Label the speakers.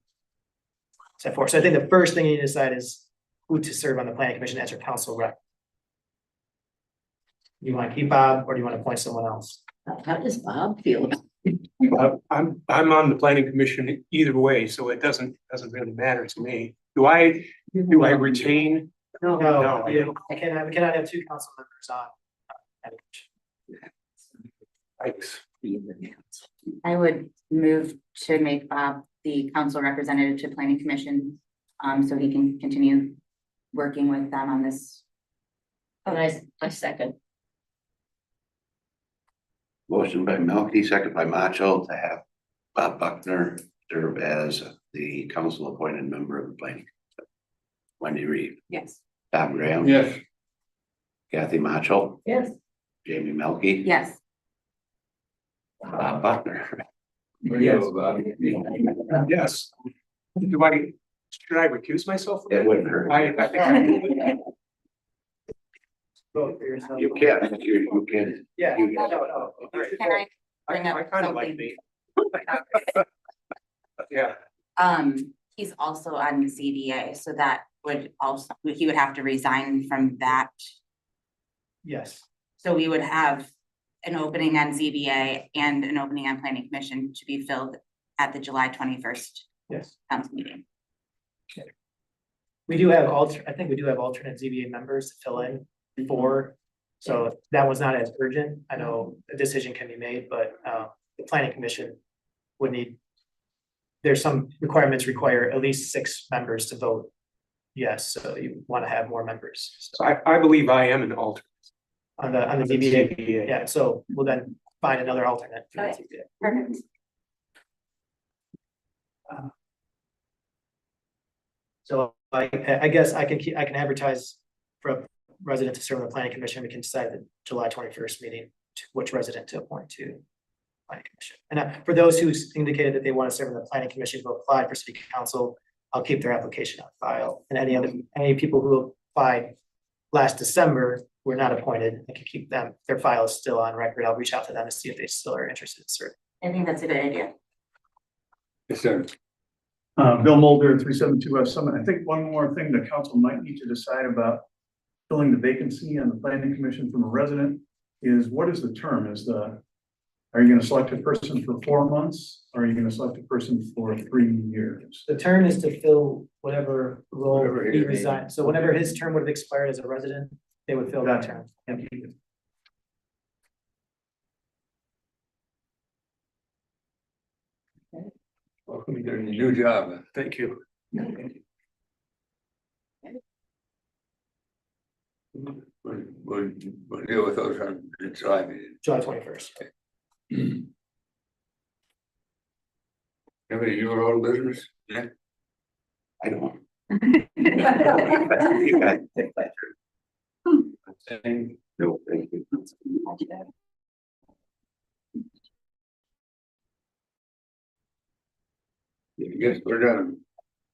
Speaker 1: set forth. So I think the first thing you need to decide is who to serve on the planning commission as your council rep. Do you want to keep Bob or do you want to appoint someone else?
Speaker 2: How does Bob feel? about-
Speaker 3: Uh, I'm, I'm on the planning commission either way, so it doesn't, doesn't really matter to me. Do I, do I retain?
Speaker 1: No,
Speaker 3: No.
Speaker 1: you cannot, we cannot have two council members on. uh,
Speaker 3: I,
Speaker 4: I would move to make Bob the council representative to planning commission, um, so he can continue working with them on this.
Speaker 2: And I, I second.
Speaker 5: Motion by Melky, second by Macho to have Bob Buckner serve as the council appointed member of the planning. Commission. Wendy Reed,
Speaker 4: Yes.
Speaker 5: Tom Graham.
Speaker 3: Yes.
Speaker 5: Kathy Macho,
Speaker 2: Yes.
Speaker 5: Jamie Melky.
Speaker 4: Yes,
Speaker 5: Bob Buckner.
Speaker 3: Yes. Yes. Do I, should I recuse myself? from
Speaker 5: It wouldn't hurt.
Speaker 3: I, I think I would.
Speaker 1: Vote for yourself.
Speaker 5: You can, you, you can.
Speaker 1: Yeah.
Speaker 5: you-
Speaker 1: no, no, all right.
Speaker 4: can I,
Speaker 3: I, I kind of like the. Yeah,
Speaker 4: um, he's also on ZDA, so that would also, he would have to resign from that.
Speaker 1: Yes,
Speaker 4: So we would have an opening on ZBA and an opening on planning commission to be filled at the July twenty-first
Speaker 1: yes.
Speaker 4: council meeting.
Speaker 1: We do have alter, I think we do have alternate ZBA members to fill in for. So if that was not as urgent. I know a decision can be made, but uh the planning commission would need. There's some requirements require at least six members to vote. Yes, so you want to have more members
Speaker 3: so I, I believe I am an alternate.
Speaker 1: on the on the ZBA. Yeah, so we'll then find another alternate. for the
Speaker 2: Right.
Speaker 1: ZBA.
Speaker 4: Perfect.
Speaker 1: So I, I guess I can keep, I can advertise for a resident to serve on the planning commission. We can decide the July twenty-first meeting, to which resident to appoint to. Planning commission. And uh, for those who indicated that they want to serve on the planning commission who applied for city council, I'll keep their application on file. And any other, any people who applied last December were not appointed, I can keep them, their file is still on record. I'll reach out to them to see if they still are interested in serving.
Speaker 4: I think that's a good idea.
Speaker 6: Uh, Bill Mulder, three seven two F Summit. I think one more thing the council might need to decide about filling the vacancy on the planning commission from a resident is what is the term? Is the, are you gonna select a person for four months? Or Are you gonna select a person for three years?
Speaker 1: The term is to fill whatever role
Speaker 3: Whatever it
Speaker 1: he
Speaker 3: is.
Speaker 1: resigned, so whenever his term would have expired as a resident, they would fill that term.
Speaker 6: And you-
Speaker 3: Welcome to your new job. Thank you.
Speaker 7: We'll, we'll, we'll deal with those on the July meeting.
Speaker 1: July twenty-first.
Speaker 7: Anybody, you were all business? Yeah.
Speaker 5: I don't.
Speaker 2: Yes.
Speaker 5: You guys take that. No, thank you.
Speaker 7: Yes, we're done.